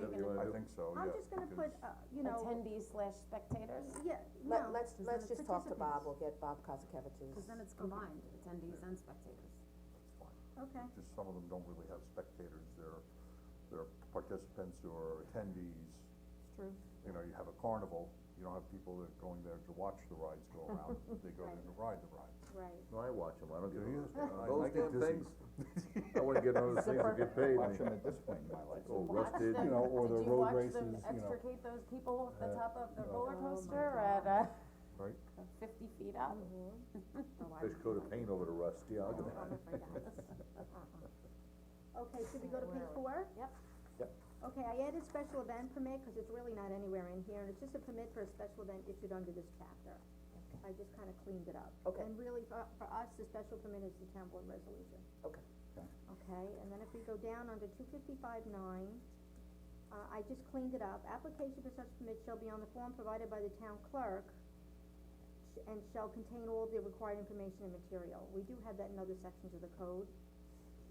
think so, yeah. I'm just gonna because- put, uh, you know, attendees slash spectators? yeah, Let, no, let's, because then let's it's just talk to Bob, participants. we'll get Bob Kozakevich's. Cause then it's combined, attendees and spectators. Okay, Just some of them don't really have spectators, they're, they're participants or attendees. True. You know, you have a carnival, you don't have people that are going there to watch the rides go around, they go there to ride the rides. right, No, I watch them, I don't Do give you? a, I those like it. damn This things, is- I wouldn't get on those things if you paid Watch me. them at this point in my life. Oh, rusted, You know, or the road races, Did you watch them you know, extricate those people off the uh, top of the no. roller Oh my coaster at, uh, right? fifty feet up? fish coat of paint over the rust, yeah, I'll give I'll it. never forget. okay, should we go to Where page are we? four? Yep. Yep. Okay, I added special event permit, cause it's really not anywhere in here, and it's just a permit for a special event issued under this chapter. I just kinda cleaned it up. Okay. And really, for, for us, the special permit is the town board resolution. Okay. Okay, and then if we go down under two fifty-five nine, uh, I just cleaned it up, application for such permit shall be on the form provided by the town clerk, sh- and shall contain all the required information and material, we do have that in other sections of the code,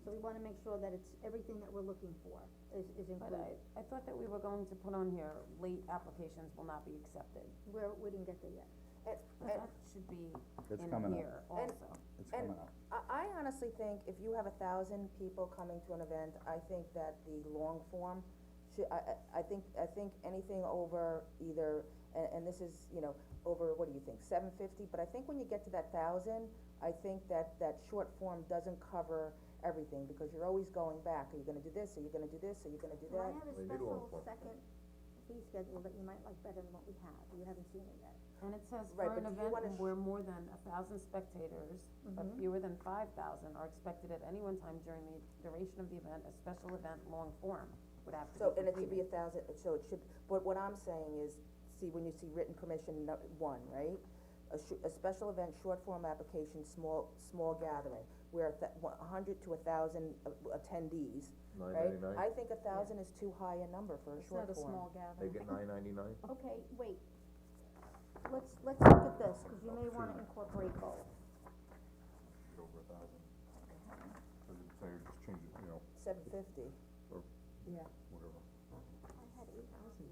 so we wanna make sure that it's everything that we're looking for is, is But I, included, I thought that we were going to put on here, late applications will not be accepted. where, we didn't get there yet. And, and, That should be It's in coming up. here also. It's And- coming up. I, I honestly think if you have a thousand people coming to an event, I think that the long form should, I, I, I think, I think anything over either, and, and this is, you know, over, what do you think, seven fifty, but I think when you get to that thousand, I think that, that short form doesn't cover everything, because you're always going back, are you gonna do this, are you gonna do this, are you gonna do Well, I that? have a We need all special four. second fee schedule that you might like better than what we have, you haven't seen it yet. And it says Right, for an but do you wanna event sh- Mm-hmm. where more than a thousand spectators, but fewer than five thousand are expected at any one time during the duration of the event, a special event long form would have to be So, completed. and it should be a thousand, so it should, but what I'm saying is, see, when you see written permission, no, one, right? A sh- a special event, short form application, small, small gathering, where a hundred to a thousand attendees, Nine right? ninety-nine, I think a thousand is too high a number for a short form. they gathering. get nine ninety-nine? Okay, wait. Let's, let's look at this, cause you may wanna incorporate both. Get over a thousand. Cause it's, they just change it, you know, Seven fifty, Yeah. whatever. I had eight thousand,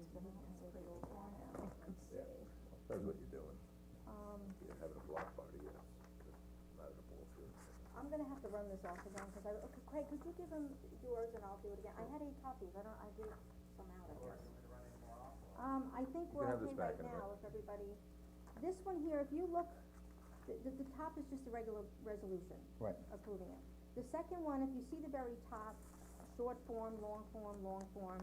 That's what you're doing, Um, you're having a block party, yes, not at a ball field. I'm gonna have to run this off again, cause I, okay, Craig, could you give him yours and I'll do it again? I had eight copies, I don't, I did some out of yours. Um, I think You we're can have okay this right back in a bit. now, if everybody, this one here, if you look, the, the, the top is just the regular resolution. Right. Approving it. The second one, if you see the very top, short form, long form, long form,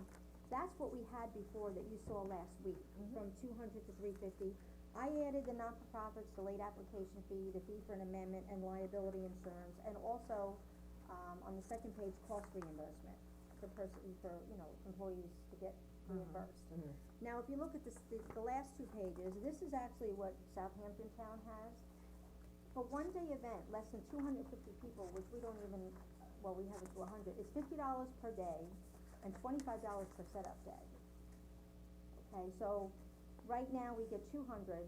that's what we had before that you saw last week, from two hundred to three fifty. I added the not-for-profits, the late application fee, the fee for an amendment, and liability insurance, and also, um, on the second page, cost reimbursement for person, for, you know, employees to get reimbursed. Now, if you look at this, the, the last two pages, this is actually what Southampton Town has. For one-day event, less than two hundred fifty people, which we don't even, well, we have it to hundred, it's fifty dollars per day and twenty-five dollars per setup day. Okay, so, right now, we get two hundred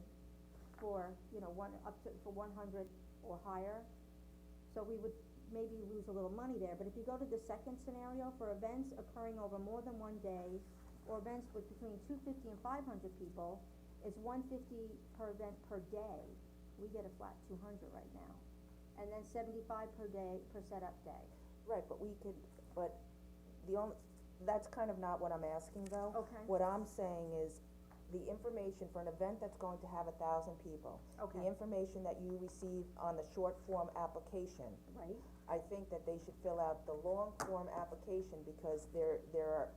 for, you know, one, up to, for one hundred or higher. So we would maybe lose a little money there, but if you go to the second scenario, for events occurring over more than one day, or events with between two fifty and five hundred people, it's one fifty per event per day, we get a flat two hundred right now. And then seventy-five per day, per setup day. right, but we could, but the only, that's kind of not what I'm asking though. Okay. Oh, What I'm saying is, the information for an event that's going to have a thousand people, the Okay. information that you receive on the short form application, Right, I think that they should fill out the long form application because there, there are,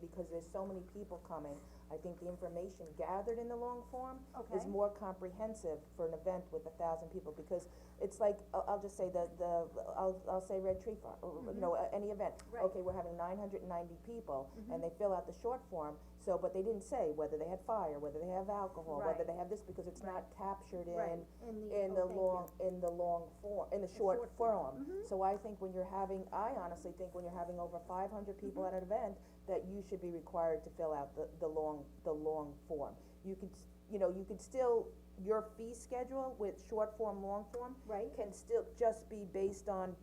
because there's so many people coming. I think the information gathered in the long form is Okay. more comprehensive for an event with a thousand people, because it's like, I'll, I'll just say the, the, I'll, I'll say Red Tree Farm, or, or no, a- any event. Mm-hmm. Right. Mm-hmm. Okay, we're having nine hundred and ninety people, and they fill out the short form, so, but they didn't say whether they had fire, whether they have alcohol, whether Right. they have this, because it's not captured in Right, in the- in oh, the thank you. long, in the long form, in the short short form. Mm-hmm. So I think when you're having, I honestly think when you're having over five hundred people at an event, that you should be required to fill out the, the long, the long form. You could, s- you know, you could still, your fee schedule with short form, long form. Right. Can still just be based on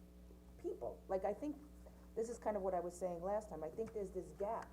people, like I think, this is kind of what I was saying last time, I think there's this gap